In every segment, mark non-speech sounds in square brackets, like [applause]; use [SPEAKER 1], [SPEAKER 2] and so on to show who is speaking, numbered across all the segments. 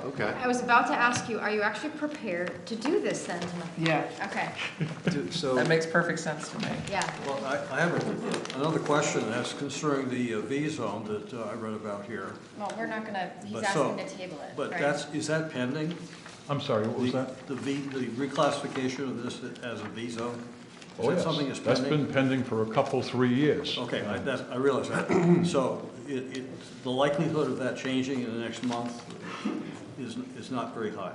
[SPEAKER 1] Okay.
[SPEAKER 2] I was about to ask you, are you actually prepared to do this then?
[SPEAKER 3] Yeah,
[SPEAKER 2] Okay,
[SPEAKER 4] Do- So,
[SPEAKER 3] that makes perfect sense to me.
[SPEAKER 2] yeah.
[SPEAKER 4] well, I, I have a- another question that's concerning the uh, V-zone that uh, I read about here.
[SPEAKER 2] Well, we're not gonna, he's
[SPEAKER 4] But so-
[SPEAKER 2] asking to table it.
[SPEAKER 4] But
[SPEAKER 2] right?
[SPEAKER 4] that's, is that pending?
[SPEAKER 5] I'm sorry, what was
[SPEAKER 4] The-
[SPEAKER 5] that?
[SPEAKER 4] The V, the reclassification of this as a V-zone? Is
[SPEAKER 5] Oh,
[SPEAKER 4] that
[SPEAKER 5] yes.
[SPEAKER 4] something that's
[SPEAKER 5] That's
[SPEAKER 4] pending?
[SPEAKER 5] been pending for a couple, three years.
[SPEAKER 4] Okay, I, that, I realize that. So it, it, the likelihood of that changing in the next month is, is not very high.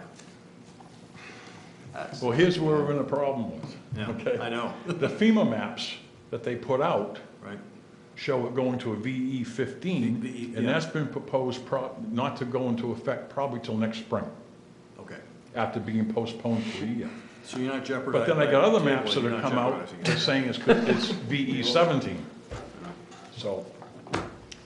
[SPEAKER 5] Well, here's where we're in a problem with.
[SPEAKER 4] Yeah,
[SPEAKER 5] okay?
[SPEAKER 4] I know.
[SPEAKER 5] [laughs] The FEMA maps that they put out
[SPEAKER 4] Right.
[SPEAKER 5] show it going to a VE
[SPEAKER 4] V-
[SPEAKER 5] fifteen,
[SPEAKER 4] VE,
[SPEAKER 5] and
[SPEAKER 4] yeah.
[SPEAKER 5] that's been proposed prob, not to go into effect probably till next spring,
[SPEAKER 4] Okay.
[SPEAKER 5] after being postponed for a year.
[SPEAKER 4] So you're not jeopardizing.
[SPEAKER 5] But then I got other maps that
[SPEAKER 4] You're
[SPEAKER 5] have
[SPEAKER 4] not
[SPEAKER 5] come out
[SPEAKER 4] jeopardizing it.
[SPEAKER 5] that's saying it's, it's VE
[SPEAKER 4] [laughs]
[SPEAKER 5] seventeen. So,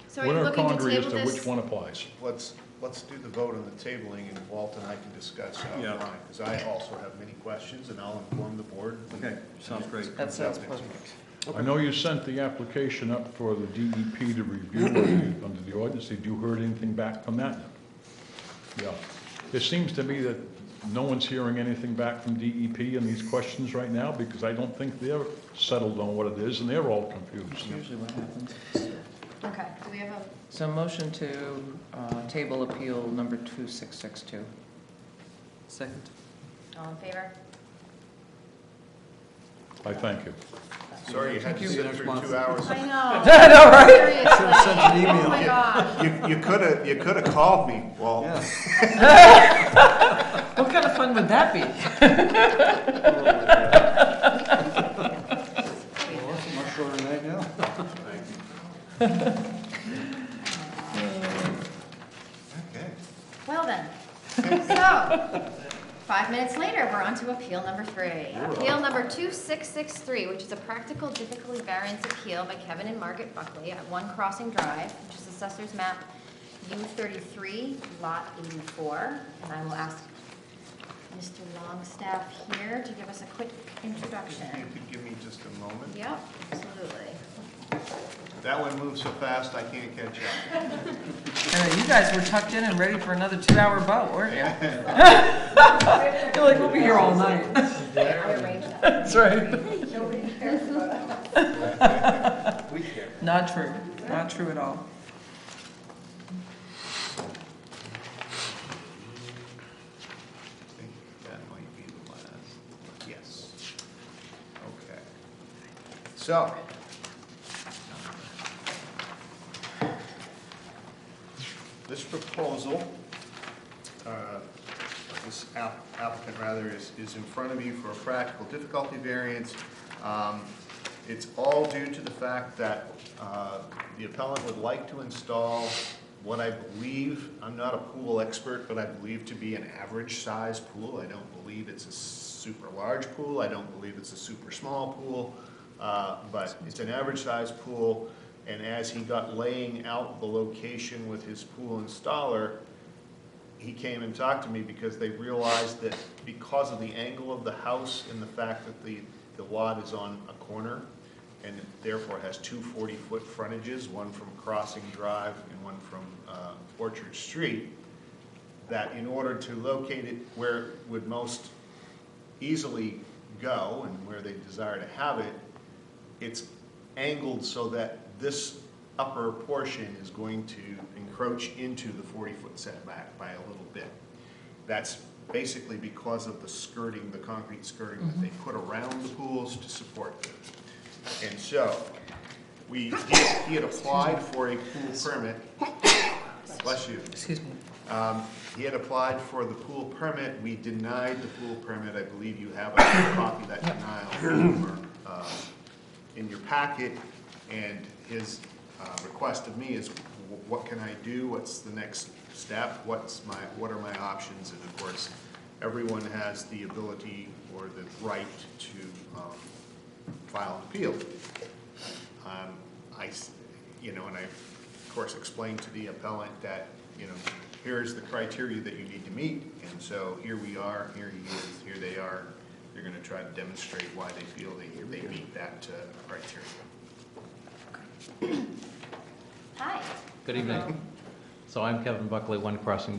[SPEAKER 2] So are you
[SPEAKER 5] we're in a
[SPEAKER 2] looking to
[SPEAKER 5] quandary as
[SPEAKER 2] table
[SPEAKER 5] to which
[SPEAKER 2] this?
[SPEAKER 5] one applies.
[SPEAKER 1] Let's, let's do the vote on the tabling, and Walt and I can discuss
[SPEAKER 4] Yeah.
[SPEAKER 1] offline, because I also have many questions, and I'll inform the board. when-
[SPEAKER 4] Okay, sounds great.
[SPEAKER 3] That sounds perfect.
[SPEAKER 5] I know you sent the application up for the DEP to review it under the ordinance. Did you heard anything back from that? Yeah. It seems to me that no one's hearing anything back from DEP in these questions right now because I don't think they're settled on what it is and they're all confused.
[SPEAKER 3] Usually what happens.
[SPEAKER 2] Okay, do we have a,
[SPEAKER 3] So motion to uh, table appeal number 2662. Second.
[SPEAKER 2] all in favor?
[SPEAKER 5] I thank you.
[SPEAKER 1] Sorry you had to
[SPEAKER 4] Thank you.
[SPEAKER 1] sit through
[SPEAKER 4] Next month.
[SPEAKER 1] two hours.
[SPEAKER 2] I [laughs] know.
[SPEAKER 4] [laughs]
[SPEAKER 2] Seriously.
[SPEAKER 4] Sent an
[SPEAKER 2] Oh my
[SPEAKER 4] email.
[SPEAKER 2] gosh.
[SPEAKER 1] You, you could have, you could have called me, Walt.
[SPEAKER 4] Yeah.
[SPEAKER 3] What kind of fun would that be?
[SPEAKER 4] Well, that's a much shorter night now.
[SPEAKER 1] Okay.
[SPEAKER 2] Well then, so, five minutes later, we're on to appeal number three. Appeal number 2663, which is a practical difficulty variance appeal by Kevin and Margaret Buckley at One Crossing Drive, which is Assessor's Map U33, Lot 84. And I will ask Mr. Longstaff here to give us a quick
[SPEAKER 1] If you
[SPEAKER 2] introduction.
[SPEAKER 1] could give me just a moment.
[SPEAKER 2] Yep, absolutely.
[SPEAKER 1] That one moved so fast, I can't catch up.
[SPEAKER 3] I know, You guys were tucked in and ready for another two-hour boat, weren't [laughs] you? You're like, we'll be here all night.
[SPEAKER 2] I arranged that.
[SPEAKER 3] [laughs] That's [laughs] right.
[SPEAKER 1] We care.
[SPEAKER 3] Not true, not true at all.
[SPEAKER 1] I think that might be the last. Yes. Okay. So. This proposal, uh, this app- applicant rather, is, is in front of you for a practical difficulty variance. Um, It's all due to the fact that uh, the appellant would like to install what I believe, I'm not a pool expert, but I believe to be an average-sized pool. I don't believe it's a super large pool, I don't believe it's a super small pool, uh, but it's an average-sized pool. And as he got laying out the location with his pool installer, he came and talked to me because they realized that because of the angle of the house and the fact that the, the lot is on a corner and therefore has two 40-foot frontages, one from Crossing Drive and one from uh, Orchard Street, that in order to locate it where it would most easily go and where they desire to have it, it's angled so that this upper portion is going to encroach into the 40-foot setback by a little bit. That's basically because of the skirting, the concrete skirting that they put around the pools to support them. And so, we, he had applied for a pool permit, bless you.
[SPEAKER 3] Excuse me.
[SPEAKER 1] Um, He had applied for the pool permit, we denied the pool permit, I believe you have a copy of that denial in your, uh, in your packet, and his uh, request of me is, wh- what can I do, what's the next step, what's my, what are my options? And of course, everyone has the ability or the right to um, file an appeal. Um, I, s- you know, and I, of course, explained to the appellant that, you know, here's the criteria that you need to meet, and so here we are, here he is, here they are. They're gonna try to demonstrate why they feel they, they meet that uh, criteria.
[SPEAKER 2] Hi.
[SPEAKER 6] Good evening.
[SPEAKER 2] Hello.
[SPEAKER 6] So I'm Kevin Buckley, One Crossing